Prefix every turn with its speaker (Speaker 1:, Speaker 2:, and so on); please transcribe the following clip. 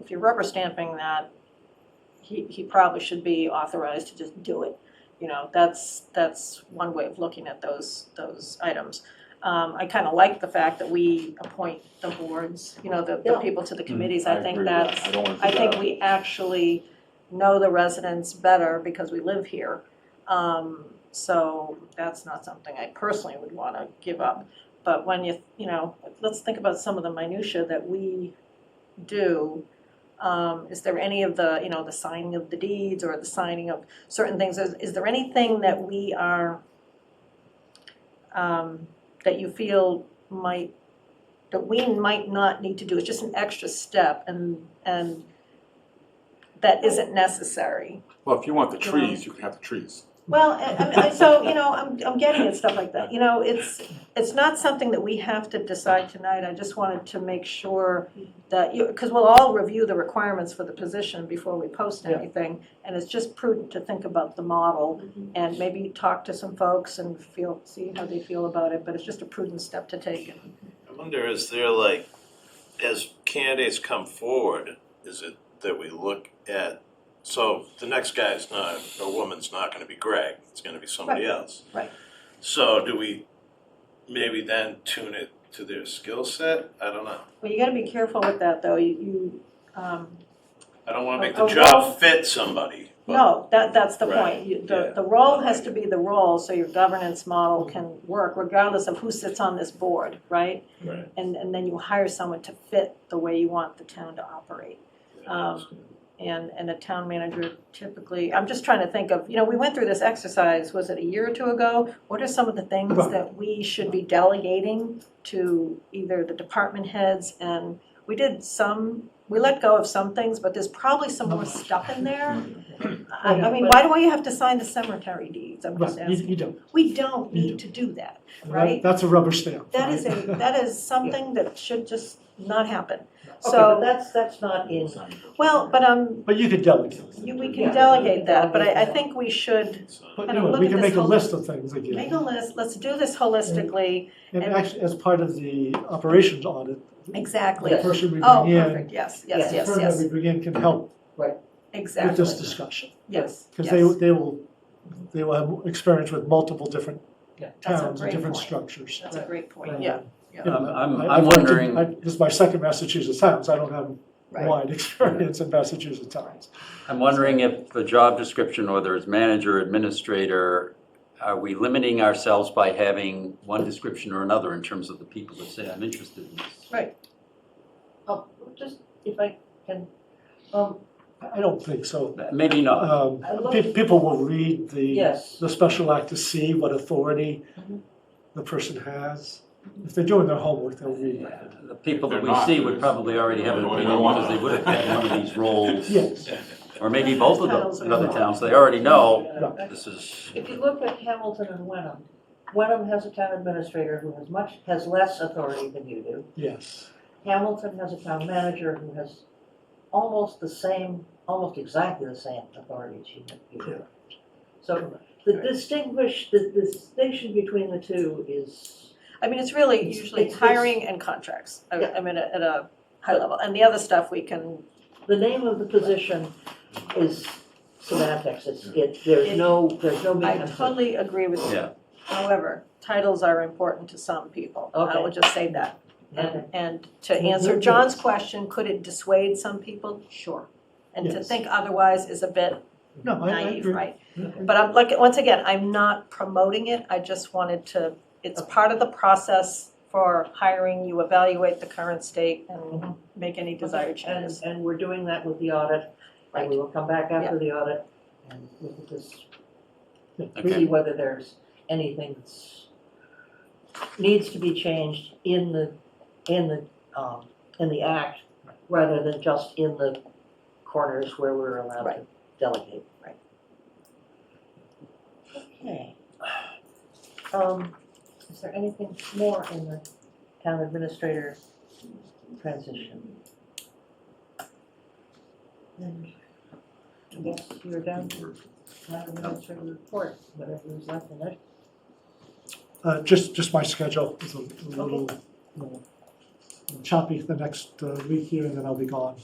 Speaker 1: if you're rubber stamping that, he, he probably should be authorized to just do it. You know, that's, that's one way of looking at those, those items. Um, I kind of like the fact that we appoint the boards, you know, the, the
Speaker 2: Yeah.
Speaker 1: people to the committees. I
Speaker 3: agree
Speaker 1: think
Speaker 3: with that.
Speaker 1: that's,
Speaker 3: Mm-hmm. I don't wanna
Speaker 1: I
Speaker 3: do
Speaker 1: think
Speaker 3: that.
Speaker 1: we actually know the residents better because we live here. Um, so that's not something I personally would wanna give up. But when you, you know, let's think about some of the minutia that we do. Um, is there any of the, you know, the signing of the deeds or the signing of certain things? Is, is there anything that we are, um, that you feel might, that we might not need to do? It's just an extra step and, and that isn't necessary.
Speaker 3: Well, if you want the
Speaker 1: Yeah.
Speaker 3: trees, you can have the trees.
Speaker 1: Well, I- I, mean, I- so, you know, I'm, I'm getting at stuff like that, you know, it's, it's not something that we have to decide tonight, I just wanted to make sure that you, because we'll all review the requirements for the position before we post
Speaker 2: Yeah.
Speaker 1: anything, and it's just prudent to think about the model, and maybe talk to some folks and feel, see how they feel about it, but it's just a prudent step to take.
Speaker 4: I wonder, is there like, as candidates come forward, is it that we look at, so the next guy's not, or woman's not gonna be Greg, it's gonna be somebody
Speaker 1: Right,
Speaker 4: else.
Speaker 1: right.
Speaker 4: So do we maybe then tune it to their skill set? I don't know.
Speaker 1: Well, you gotta be careful with that, though, you, you, um,
Speaker 4: I don't wanna make
Speaker 1: A-
Speaker 4: the
Speaker 1: a role-
Speaker 4: job fit somebody, but
Speaker 1: No, that, that's the
Speaker 4: Right,
Speaker 1: point. You- The,
Speaker 4: yeah.
Speaker 1: the role has to be the role, so your governance model can work regardless of who sits on this board, right?
Speaker 4: Right.
Speaker 1: And, and then you hire someone to fit the way you want the town to operate. Um, And, and a town manager typically, I'm just trying to think of, you know, we went through this exercise, was it a year or two ago? What are some of the things that we should be delegating to either the department heads? And we did some, we let go of some things, but there's probably some more stuff in there I, I mean, why do I have to sign the cemetery deeds, I'm just
Speaker 2: Right, you,
Speaker 1: asking.
Speaker 2: you don't.
Speaker 1: We don't
Speaker 2: You
Speaker 1: need to do that.
Speaker 2: That-
Speaker 1: Right.
Speaker 2: That's a rubber stamp.
Speaker 1: That is a,
Speaker 2: right?
Speaker 1: that is something that should just not happen.
Speaker 5: Okay, but
Speaker 1: So,
Speaker 5: that's, that's not in,
Speaker 1: well, but, um,
Speaker 2: But you could delegate.
Speaker 1: you, we can
Speaker 5: Yeah.
Speaker 1: delegate that, but I, I think we should
Speaker 2: But
Speaker 1: Kinda
Speaker 2: anyway,
Speaker 1: look
Speaker 2: we
Speaker 1: at
Speaker 2: can
Speaker 1: this
Speaker 2: make a
Speaker 1: whole-
Speaker 2: list of things again.
Speaker 1: make a list, let's do this holistically,
Speaker 2: And
Speaker 1: and-
Speaker 2: actually, as part of the operations audit,
Speaker 1: exactly.
Speaker 2: the person we
Speaker 1: Oh,
Speaker 2: bring in,
Speaker 1: perfect, yes, yes,
Speaker 2: the
Speaker 1: yes,
Speaker 2: firm that
Speaker 1: yes,
Speaker 2: we bring in can help with
Speaker 1: exactly,
Speaker 2: this discussion.
Speaker 1: yes,
Speaker 2: Because they,
Speaker 1: yes.
Speaker 2: they will, they will have experience with multiple different
Speaker 5: Yeah.
Speaker 1: That's a
Speaker 2: towns and
Speaker 1: great
Speaker 2: different
Speaker 1: point.
Speaker 2: structures.
Speaker 1: That's a great point,
Speaker 2: Right.
Speaker 1: yeah,
Speaker 2: You know,
Speaker 6: I'm- I'm-
Speaker 2: I- I
Speaker 6: I'm
Speaker 2: worked in-
Speaker 6: wondering-
Speaker 2: I- This is my second Massachusetts Towns, I don't have
Speaker 1: right.
Speaker 2: wide experience in Massachusetts Towns.
Speaker 6: I'm wondering if the job description, whether it's manager, administrator, are we limiting ourselves by having one description or another in terms of the people that say, I'm interested in this?
Speaker 5: oh, just if I can, um,
Speaker 2: I I don't think so.
Speaker 6: Maybe not.
Speaker 2: Um,
Speaker 5: I look-
Speaker 2: pe- People will read the,
Speaker 5: yes,
Speaker 2: the special act to see what authority
Speaker 5: Mhm.
Speaker 2: the person has. If they're doing their homework, they'll read
Speaker 6: Yeah,
Speaker 2: that.
Speaker 6: The people that
Speaker 3: They're
Speaker 6: we
Speaker 3: not,
Speaker 6: see
Speaker 3: there's-
Speaker 6: would probably already have an
Speaker 3: Well, we
Speaker 6: opinion
Speaker 3: don't want
Speaker 6: because they
Speaker 3: them.
Speaker 6: would have had one of these roles.
Speaker 2: Yes,
Speaker 6: Or maybe both of
Speaker 1: Titles are
Speaker 6: them in other
Speaker 1: wrong.
Speaker 6: towns, they already know
Speaker 2: Right.
Speaker 6: this is,
Speaker 5: if you look at Hamilton and Wenham, Wenham has a town administrator who has much, has less authority than you do.
Speaker 2: yes.
Speaker 5: Hamilton has a town manager who has almost the same, almost exactly the same authority as you have. you do. So the distinguish, the the distinction between the two is,
Speaker 1: I mean, it's really
Speaker 5: It's-
Speaker 1: usually
Speaker 5: it's- it's-
Speaker 1: hiring and contracts, I,
Speaker 5: Yeah.
Speaker 1: I mean, at a high level, and the other stuff we can
Speaker 5: the name of the position is semantics, it's, it, there's no, there's no
Speaker 1: I
Speaker 5: meaning.
Speaker 1: totally agree with you.
Speaker 6: yeah.
Speaker 1: However, titles are important to some people. I
Speaker 5: Okay.
Speaker 1: will just say that.
Speaker 5: Okay.
Speaker 1: And, and to answer John's question, could it dissuade some people? Sure. And to
Speaker 2: Yes.
Speaker 1: think otherwise is a bit
Speaker 2: No, I I
Speaker 1: naive,
Speaker 2: agree.
Speaker 1: right? But I'm like, once again, I'm not promoting it, I just wanted to, it's part of the process for hiring, you evaluate the current state and make any desired changes.
Speaker 5: And, and we're doing that with the audit, and we will come back after the audit and look at this, see
Speaker 6: Okay,
Speaker 5: whether there's anything that's needs to be changed in the, in the, um, in the act, rather than just in the corners where we're allowed to
Speaker 1: Right.
Speaker 5: delegate.
Speaker 1: Right.
Speaker 5: Okay. Um, is there anything more in the town administrator transition? And I guess you're down to town administrator report, whatever is left in it.
Speaker 2: Uh, just, just my schedule is a little little choppy the next uh, week here, and then I'll be gone.